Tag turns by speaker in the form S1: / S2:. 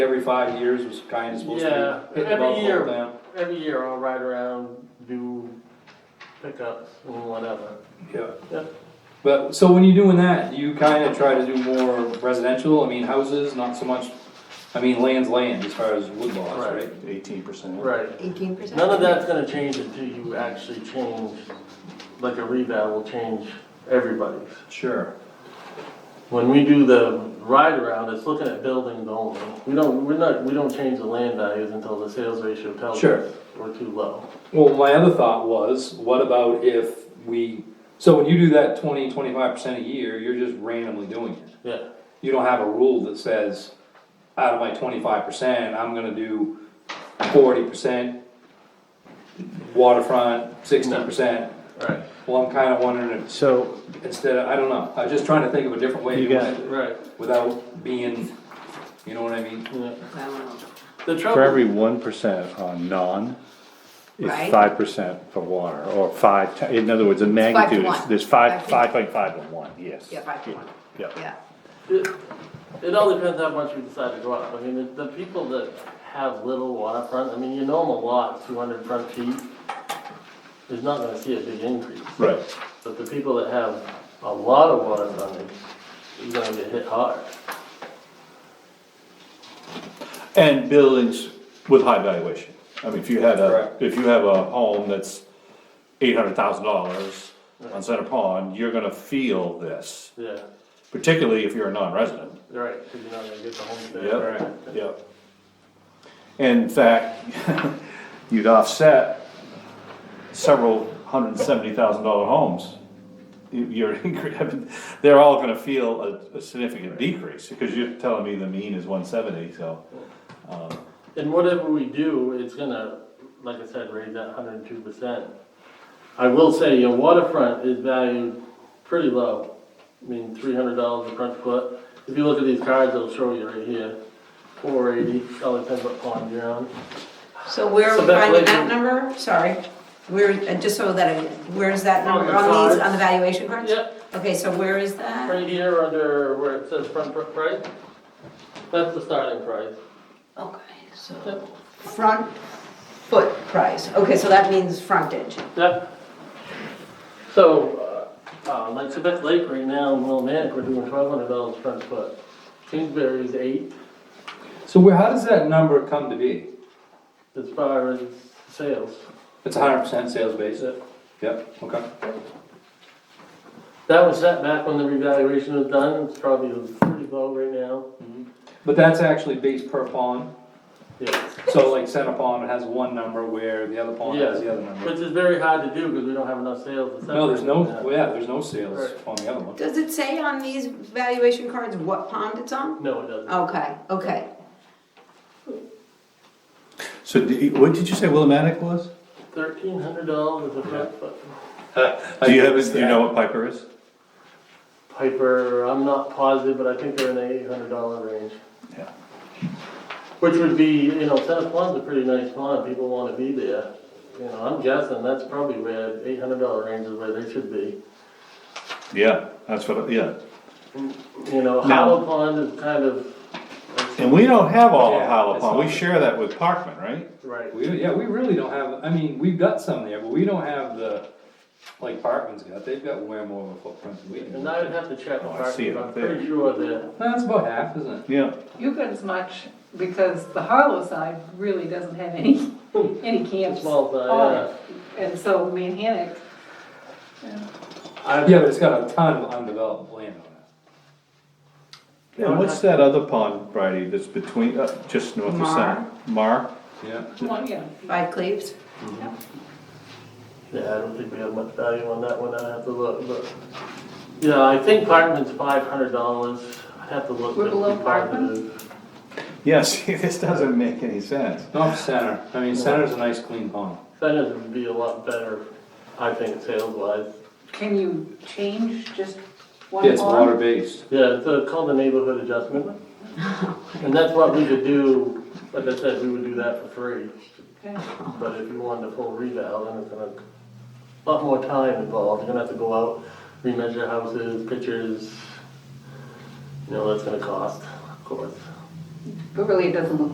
S1: Every five years was kind of supposed
S2: Yeah,
S1: to be. hitting
S2: every
S1: buckle
S2: year.
S1: down.
S2: Every year I'll ride around, do pickups and whatever.
S1: Yeah.
S2: Yeah.
S1: But, so when you're doing that, you kind of try to do more residential, I mean, houses, not so much, I mean, land's land as far as wood lots,
S2: Right.
S1: right?
S3: Eighteen percent.
S2: Right.
S4: Eighteen percent?
S2: None of that's gonna change until you actually change, like a revale will change everybody's.
S1: Sure.
S2: When we do the ride around, it's looking at buildings only. We don't, we're not, we don't change the land values until the sales ratio tells
S1: Sure.
S2: us we're too low.
S1: Well, my other thought was, what about if we, so when you do that twenty, twenty-five percent a year, you're just randomly doing it.
S2: Yeah,
S1: You don't have a rule that says, out of my twenty-five percent, I'm gonna do forty percent waterfront, sixty percent.
S2: right,
S1: Well, I'm kinda wondering if
S3: So
S1: instead of, I don't know, I was just trying to think of a different way to
S3: You
S1: do
S3: got
S1: it
S2: right,
S1: without being, you know what I mean?
S2: yeah.
S4: Wow.
S2: The
S3: for
S2: trouble,
S3: every one percent on non,
S4: Right.
S3: it's five percent for water, or five, ti- in other words, the
S4: to
S3: magnitude is,
S4: one.
S3: there's five,
S4: Five to-
S3: five point five to one, yes.
S4: Yeah, five to one,
S3: Yeah,
S4: yeah.
S2: it it all depends how much we decide to go up. I mean, the, the people that have little waterfront, I mean, you know them a lot, two hundred front feet, is not gonna see a big increase.
S3: right,
S2: But the people that have a lot of water frontage, you're gonna get hit hard.
S5: And buildings with high valuation. I mean, if you had a,
S1: Correct.
S5: if you have a home that's eight hundred thousand dollars on Center Pond, you're gonna feel this,
S2: Yeah,
S5: particularly if you're a non-resident.
S2: you're right, because you're not gonna get the home there.
S5: Yep, yep. And in fact, you'd offset several hundred and seventy thousand dollar homes. You- You're, incre- they're all gonna feel a, a significant decrease, because you're telling me the mean is one seventy, so.
S2: And whatever we do, it's gonna, like I said, raise that hundred and two percent. I will say, your waterfront is valued pretty low. I mean, three hundred dollars a front foot. If you look at these cards, it'll show you right here, four eighty, all depends what pond you're on.
S4: So where are
S2: So
S4: we
S2: that
S4: finding
S2: way
S4: that
S2: you-
S4: number? Sorry. Where, uh, just so that I, where's that
S2: On
S4: number
S2: the
S4: on these,
S2: cards.
S4: on the valuation cards?
S2: Yep,
S4: Okay, so where is that?
S2: right here under where it says front foot price, that's the starting price.
S4: Okay, so front foot price. Okay, so that means frontage.
S2: Yeah. So, uh, uh, like Quebec Lake right now in Willimantic, we're doing twelve hundred dollars front foot. Kingsbury's eight
S1: So where, how does that number come to be?
S2: as far as sales.
S1: It's hundred percent sales based?
S2: That
S1: Yep, okay.
S2: that was set back when the revaluation was done, it's probably pretty low right now.
S1: But that's actually based per pond,
S2: Yeah,
S1: so like center pond has one number where the other pond has the other number.
S2: which is very hard to do because we don't have enough sales to
S1: No, there's
S2: separate
S1: no,
S2: that.
S1: well, yeah, there's no sales on the other one.
S4: Does it say on these valuation cards what pond it's on?
S2: No, it doesn't.
S4: Okay, okay.
S3: So what did you say Willimantic was?
S2: Thirteen hundred dollars a front foot.
S5: Do you have, do you know what Piper is?
S2: Piper, I'm not positive, but I think they're in the eight hundred dollar range.
S5: Yeah.
S2: Which would be, you know, Santa Pond's a pretty nice pond, people wanna be there. You know, I'm guessing that's probably where eight hundred dollar range is where they should be.
S5: Yeah, that's what, yeah.
S2: You know, Hollow Pond is kind of,
S5: And we don't have all of
S1: Yeah,
S5: Hollow
S1: it's
S5: Pond, we
S1: not-
S5: share that with Parkman, right?
S2: right,
S1: We, yeah, we really don't have, I mean, we've got some there, but we don't have the, like Parkman's got, they've got way more of a footprint than we do.
S2: and I'd have to check the
S5: Oh, I
S2: parking,
S5: see it
S2: but I'm
S5: up there.
S2: pretty sure that,
S1: That's about half, isn't it?
S5: Yeah.
S6: You got as much, because the Harlow side really doesn't have any, any camps.
S2: Small side,
S6: on it. And so Manhattan,
S2: I,
S1: Yeah, but it's got a ton of undeveloped land on it.
S5: And what's that other pond, Bridie, that's between, uh, just north of Center? Mar?
S1: Yeah,
S6: well, yeah,
S4: By Cleves?
S2: yeah, I don't think we have much value on that one, I'd have to look, but. Yeah, I think Parkman's five hundred dollars, I'd have to look.
S6: We're
S2: just to be
S6: below Parkman?
S2: positive.
S5: Yeah, see, this doesn't make any sense.
S1: not center. I mean, center's a nice clean pond.
S2: Senate would be a lot better, I think, sales wise.
S6: can you change just one
S1: Yeah, it's
S6: arm?
S1: water based.
S2: Yeah, it's uh, called the neighborhood adjustment. And that's what we could do, like I said, we would do that for free.
S6: Okay.
S2: But if you wanted a full reval, then it's gonna, a lot more time involved. You're gonna have to go out, remeasure houses, pictures. You know, that's gonna cost, of course.
S6: but really it doesn't look